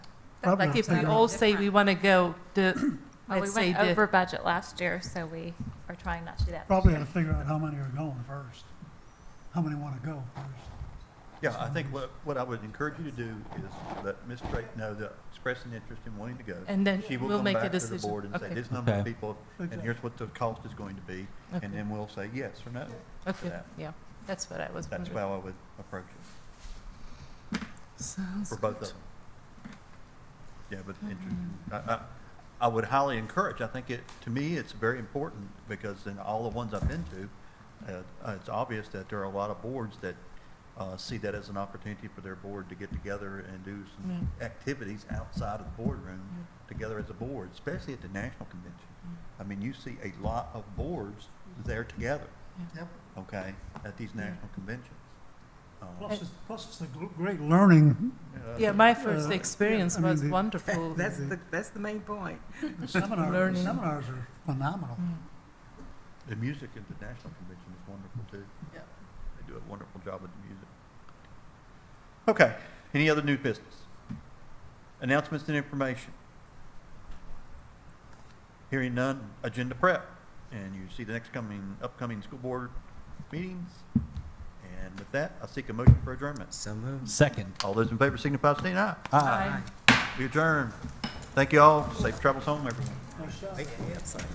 Probably Like not if we that all much. say we want to go, the, Well, we let's say went the, over budget last year, so we are trying not to do that. this Probably ought year. to figure out how many are going first, how many want to go first. Yeah, I think what, what I would encourage you to do is let Ms. Drake know that expressing interest in wanting to go. and then She will we'll come make a back to the decision. board and say, Okay, this number of Okay. people, and here's what the cost is going to be. And then we'll say yes or no. okay, that. yeah, that's what I was That's wondering. how I would approach it, Sounds for both of good. them. Yeah, but interesting. I, I, I would highly encourage, I think it, to me, it's very important, because in all the ones I've been to, uh, uh, it's obvious that there are a lot of boards that, uh, see that as an opportunity for their board to get together and do some activities outside of the boardroom together as a board, especially at the national convention. I mean, you see a lot of boards there together. Yep. Okay, at these national conventions. Um, Plus, it's- plus it's a gl- great learning Yeah, my first experience I mean, was the- wonderful. Mm. That's the, that's the main point. The seminar, the Learning. seminars are phenomenal. The music at the national convention is wonderful too. Yeah. They do a wonderful job with the music. Okay, any other new business? Announcements and information. Hearing none, agenda prep, and you see the next coming, upcoming school board meetings. And with that, I seek a motion for adjournment. So moved. Second. All those in favor signify by saying aye. Aye. We adjourn. Thank you all. Safe travels home, everyone. Make the website.